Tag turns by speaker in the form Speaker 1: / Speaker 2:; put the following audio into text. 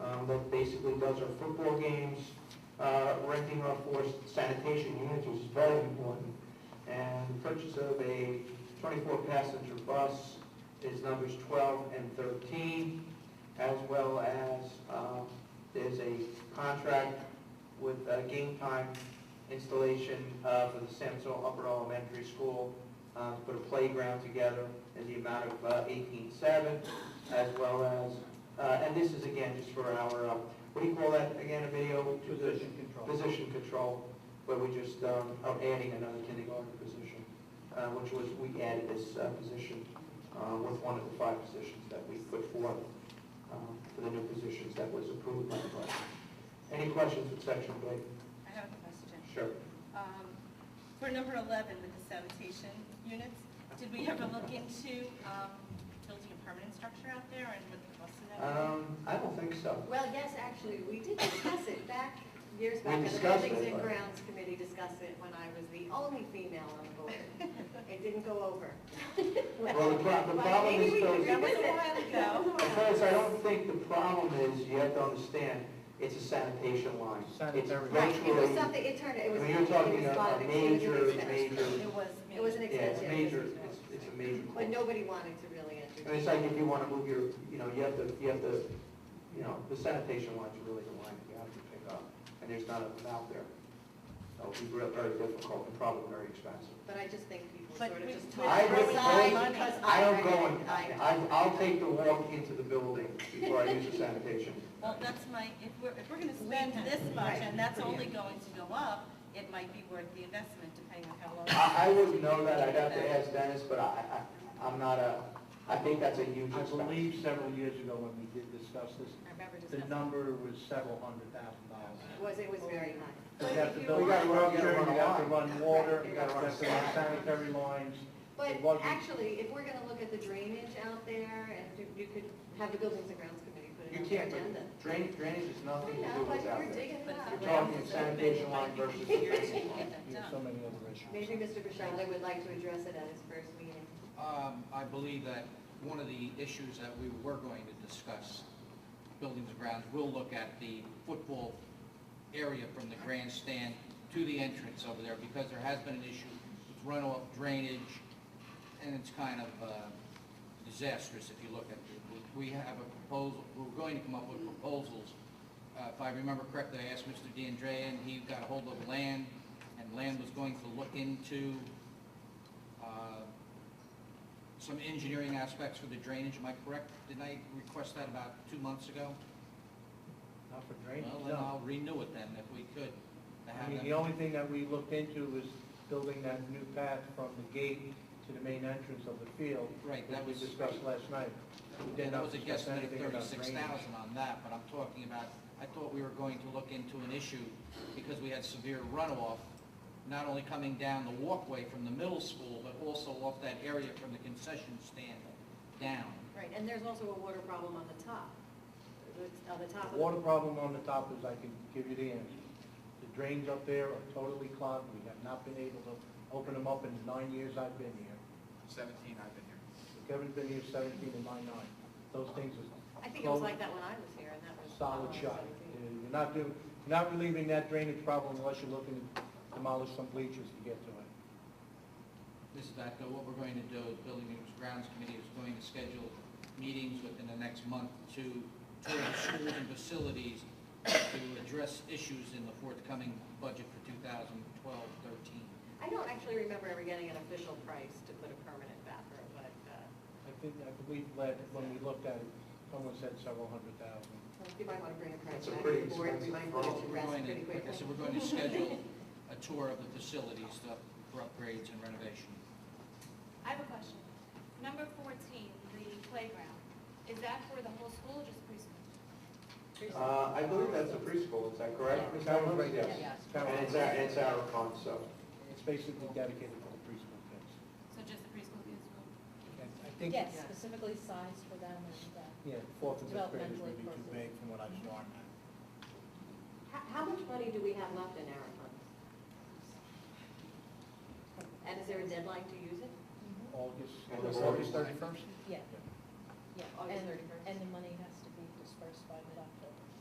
Speaker 1: um, that basically does our football games, uh, renting our four sanitation units, which is very important. And the purchase of a 24-passenger bus is numbers 12 and 13, as well as um, there's a contract with uh, game time installation uh, for the Samsel Upper Elementary School, uh, to put a playground together in the amount of uh, 18.7, as well as uh, and this is again just for our, uh, what do you call that again, Emilio? Position control. Position control, where we just um, are adding another kindergarten position, uh, which was, we added this uh, position uh, with one of the five positions that we put forth um, for the new positions that was approved by the budget. Any questions with section B?
Speaker 2: I have a question.
Speaker 1: Sure.
Speaker 2: Um, For number 11 with the sanitation units, did we ever look into um, building a permanent structure out there and what the cost of that?
Speaker 1: Um,
Speaker 2: would
Speaker 1: I don't think so.
Speaker 3: Well, yes, actually, we did discuss it back,
Speaker 1: We
Speaker 3: years back, and the
Speaker 1: discussed
Speaker 3: Buildings
Speaker 1: it,
Speaker 3: and
Speaker 1: but-
Speaker 3: Grounds Committee discussed it when I was the only female on the board. It didn't go over.
Speaker 1: Well, the pro- the
Speaker 3: Well,
Speaker 1: problem
Speaker 3: maybe
Speaker 1: is
Speaker 3: we could
Speaker 1: those-
Speaker 2: That was a
Speaker 3: revisit.
Speaker 2: while ago.
Speaker 3: That was a while
Speaker 1: Because I
Speaker 3: ago.
Speaker 1: don't think the problem is, you have to understand, it's a sanitation line.
Speaker 4: Sanitary.
Speaker 1: It's
Speaker 3: Right, it was
Speaker 1: virtually-
Speaker 3: something, it turned, it was.
Speaker 1: I mean, you're
Speaker 3: it
Speaker 1: talking
Speaker 3: was
Speaker 1: a- a
Speaker 3: lot of- it was an
Speaker 1: major,
Speaker 3: expense.
Speaker 1: major-
Speaker 2: be? It was me.
Speaker 3: It was an
Speaker 1: Yeah, it's
Speaker 3: extension.
Speaker 1: major, it's, it's a major.
Speaker 3: But
Speaker 1: call.
Speaker 3: nobody wanted to really enter.
Speaker 1: And it's like if you want to move your, you know, you have to, you have to, you know, the sanitation lines are really the line that you have to pick up, and there's not enough out there. So it'd be real- very difficult and probably very expensive.
Speaker 3: But I just think people
Speaker 2: But
Speaker 3: sort of
Speaker 2: we-
Speaker 3: just
Speaker 2: we-
Speaker 3: tossed
Speaker 1: I
Speaker 3: it
Speaker 1: would
Speaker 3: aside
Speaker 1: vote-
Speaker 3: because
Speaker 1: I
Speaker 3: I
Speaker 1: don't
Speaker 3: read
Speaker 1: go
Speaker 3: it.
Speaker 1: and,
Speaker 3: I-
Speaker 1: I, I'll take the walk into the building before I use the sanitation.
Speaker 2: Well, that's my, if we're, if we're going to
Speaker 3: We
Speaker 2: spend
Speaker 3: have-
Speaker 2: this much
Speaker 3: right.
Speaker 2: and that's only going to go up, it might be worth the investment depending on how long.
Speaker 1: I, I wouldn't know that, I'd have to ask Dennis, but I, I, I'm not a, I think that's a huge
Speaker 4: I
Speaker 1: expense.
Speaker 4: believe several years ago when we did discuss this,
Speaker 3: I remember
Speaker 4: the
Speaker 3: discussing.
Speaker 4: number was several hundred thousand dollars.
Speaker 3: Was, it was very high.
Speaker 4: You have to build
Speaker 1: We gotta run-
Speaker 4: structure,
Speaker 1: we gotta run
Speaker 4: you
Speaker 1: a
Speaker 4: have to
Speaker 1: line.
Speaker 4: run water,
Speaker 3: Right,
Speaker 4: you
Speaker 3: you
Speaker 4: have to
Speaker 3: gotta
Speaker 4: run
Speaker 1: run a line.
Speaker 4: sanitary lines. It
Speaker 3: But
Speaker 4: wasn't-
Speaker 3: actually, if we're gonna look at the drainage out there, and you- you could have the Buildings and Grounds Committee put it
Speaker 1: You
Speaker 3: on the
Speaker 1: can't,
Speaker 3: agenda.
Speaker 1: drainage, drainage has
Speaker 3: I
Speaker 1: nothing to do
Speaker 3: know,
Speaker 1: with
Speaker 3: but
Speaker 1: out
Speaker 3: we're
Speaker 1: there.
Speaker 3: digging it
Speaker 2: But
Speaker 3: up.
Speaker 2: if the
Speaker 1: You're talking
Speaker 2: ground is
Speaker 1: sanitation
Speaker 2: open,
Speaker 1: line
Speaker 2: it might be
Speaker 1: versus the
Speaker 2: easier
Speaker 1: drainage
Speaker 2: to get that
Speaker 4: You have
Speaker 2: done.
Speaker 4: so many other issues.
Speaker 3: Maybe Mr. Bishala would like to address it at his first meeting.
Speaker 5: Um, I believe that one of the issues that we were going to discuss, buildings and grounds, we'll look at the football area from the grandstand to the entrance over there, because there has been an issue with runoff drainage, and it's kind of uh, disastrous if you look at it. We have a proposal, we're going to come up with proposals. Uh, If I remember correctly, I asked Mr. DeAndrea, and he got a hold of land, and land was going to look into uh, some engineering aspects for the drainage, am I correct? Didn't I request that about two months ago?
Speaker 4: Not for drainage,
Speaker 5: Well, then
Speaker 4: no.
Speaker 5: I'll renew it then, if we could. to
Speaker 4: I
Speaker 5: have
Speaker 4: mean,
Speaker 5: them-
Speaker 4: the only thing that we looked into was building that new path from the gate to the main entrance of the field.
Speaker 5: Right,
Speaker 4: which
Speaker 5: that
Speaker 4: we
Speaker 5: was,
Speaker 4: discussed last night. We did
Speaker 5: and that
Speaker 4: not
Speaker 5: was a
Speaker 4: discuss
Speaker 5: guesstimate of
Speaker 4: anything about
Speaker 5: thirty-six
Speaker 4: drainage.
Speaker 5: thousand on that, but I'm talking about, I thought we were going to look into an issue because we had severe runoff, not only coming down the walkway from the middle school, but also off that area from the concession stand down.
Speaker 3: Right, and there's also a water problem on the top, It's on the top of the...
Speaker 4: Water problem on the top is, I can give you the answer. The drains up there are totally clogged, we have not been able to open them up in the nine years I've been here.
Speaker 6: 17 I've been here.
Speaker 4: Kevin's been here seventeen and my nine. Those things are
Speaker 3: I think it was like that when I was here, and that was...
Speaker 4: solid shot. You're not doing, you're not relieving that drainage problem unless you're looking to demolish some bleachers to get to it.
Speaker 5: This is that, what we're going to do, the Building and Grounds Committee is going to schedule meetings within the next month to tour the schools and facilities to address issues in the forthcoming budget for 2012, 13.
Speaker 3: I don't actually remember ever getting an official price to put a permanent bathroom, but, uh,
Speaker 4: I think, I believe that when we looked at it, someone said several hundred thousand.
Speaker 3: you might want to bring a price
Speaker 1: That's a
Speaker 3: back to
Speaker 1: pretty
Speaker 3: the board, we
Speaker 1: expensive
Speaker 3: might put it to
Speaker 1: problem.
Speaker 5: We're
Speaker 3: rest
Speaker 5: going
Speaker 3: pretty
Speaker 5: to- Like I
Speaker 3: quickly.
Speaker 5: said, we're going to schedule a tour of the facilities to- for upgrades and renovation.
Speaker 7: I have a question. Number 14, the playground, is that for the whole school or just preschool?
Speaker 1: Uh, I believe that's a preschool, is that correct? Ms. Edwards? Yes.
Speaker 3: Yes.
Speaker 1: And it's our, it's our fund, so.
Speaker 4: It's basically dedicated to the preschool kids.
Speaker 7: So just the preschool kids will?
Speaker 4: And I think,
Speaker 8: Yes, specifically sized for them and, uh,
Speaker 4: yeah, fourth and fifth graders would be
Speaker 8: Developmentally
Speaker 4: too big from what I saw.
Speaker 3: How, how much money do we have left in our funds? And is there a deadline to use it?
Speaker 4: Mm-hmm. August, August thirty-first?
Speaker 8: yeah, yeah.
Speaker 3: August
Speaker 8: And-
Speaker 3: 31st.
Speaker 8: And the money has to be dispersed by mid-October.